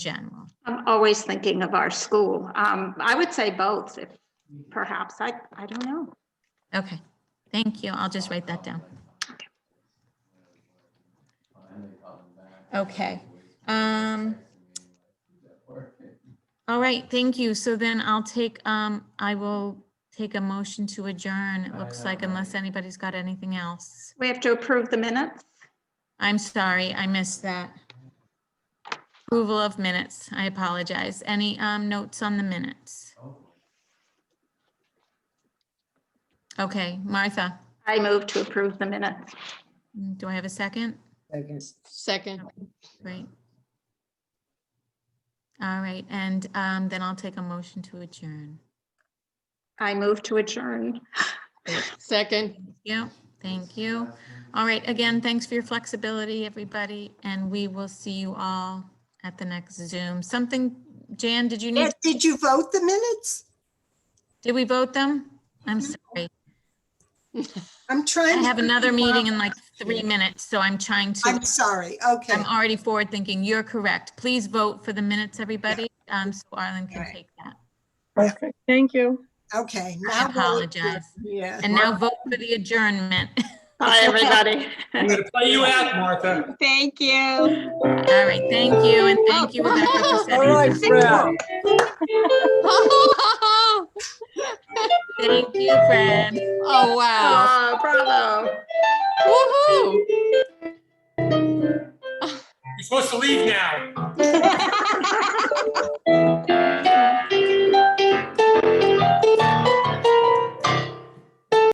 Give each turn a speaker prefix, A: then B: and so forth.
A: general?
B: I'm always thinking of our school. Um, I would say both, if perhaps. I, I don't know.
A: Okay, thank you. I'll just write that down. Okay. um, All right, thank you. So then I'll take, um, I will take a motion to adjourn, it looks like, unless anybody's got anything else.
B: We have to approve the minutes.
A: I'm sorry, I missed that. Approval of minutes, I apologize. Any um, notes on the minutes? Okay, Martha,
B: I move to approve the minutes.
A: Mm, do I have a second?
C: Second,
A: Right. All right, and um, then I'll take a motion to adjourn.
B: I move to adjourn.
C: second.
A: Yeah, thank you. All right, again, thanks for your flexibility, everybody, and we will see you all at the next Zoom. Something, Jan, did you need,
D: Ed, Did you vote the minutes?
A: did we vote them? I'm
D: Mm-hmm.
A: sorry.
D: I'm
A: I
D: trying. to
A: have another meeting in like three minutes, so I'm trying to,
D: I'm sorry. Okay.
A: I'm already forward thinking. You're correct. Please vote for the minutes, everybody, um, so Arlen can
D: Alright.
A: take that.
E: Perfect, thank you.
D: Okay.
A: I
D: now vote.
A: apologize.
D: Yeah.
A: And now vote for the adjournment.
B: Bye, everybody.
F: I'm gonna play you out, Martha.
G: Thank you.
A: All right, thank you, and thank you, Rebecca, for setting
C: All
A: this up.
C: Oh,
A: Thank you, Fred.
C: wow.
B: Oh, bravo.
C: Woohoo.
F: You're supposed to leave now.